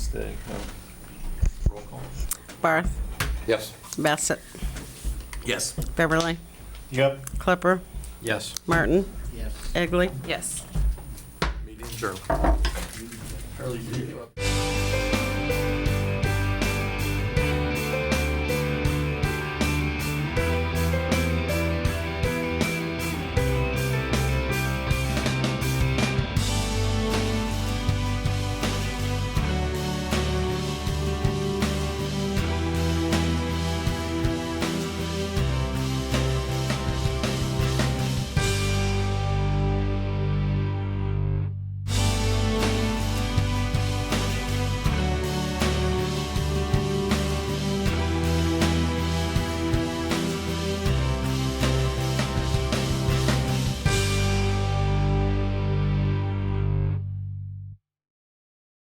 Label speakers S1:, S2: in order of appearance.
S1: mistake.
S2: Roll call.
S3: Barth,
S4: Yes.
S3: Bassett,
S2: Yes.
S3: Beverly,
S1: Yep.
S3: Klepper,
S4: Yes.
S3: Martin,
S5: Yes.
S3: Egley. Yes.
S2: Meeting adjourned.